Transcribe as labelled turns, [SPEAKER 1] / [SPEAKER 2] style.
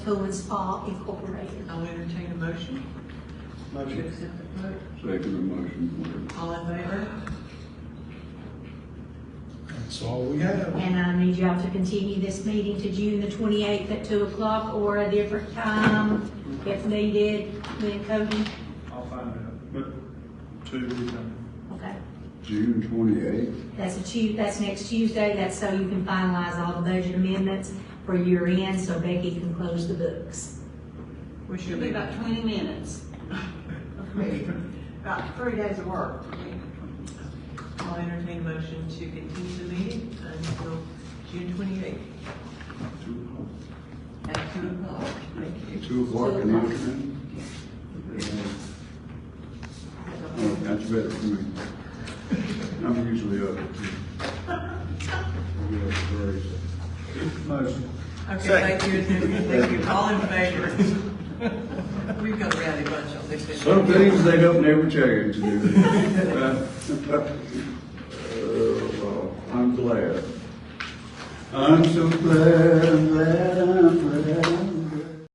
[SPEAKER 1] Owens Hall Incorporated.
[SPEAKER 2] I'll entertain a motion to
[SPEAKER 3] Motion.
[SPEAKER 2] accept the vote.
[SPEAKER 4] Second the motion,
[SPEAKER 2] All in favor?
[SPEAKER 3] That's all we have.
[SPEAKER 1] And I need y'all to continue this meeting to June the twenty-eighth at two o'clock or a different time if needed, then Cody,
[SPEAKER 3] I'll find out, but two, we can-
[SPEAKER 1] okay?
[SPEAKER 4] please. June twenty-eighth,
[SPEAKER 1] That's a Tu, that's next Tuesday, that's so you can finalize all the budget amendments for year end, so Becky can close the books.
[SPEAKER 2] We should be about twenty minutes. About three days of work. I'll entertain a motion to continue the meeting until June twenty-eighth at two o'clock. Thank you.
[SPEAKER 4] two o'clock in the afternoon. Oh, That's better for me. I'm usually up at two. I'll be up at three.
[SPEAKER 3] Motion.
[SPEAKER 2] Okay, thank you, thank you, all in favor. We've got a rowdy bunch on this.
[SPEAKER 4] Some things they don't never change. do they? Uh, well, I'm glad. I'm so glad, I'm glad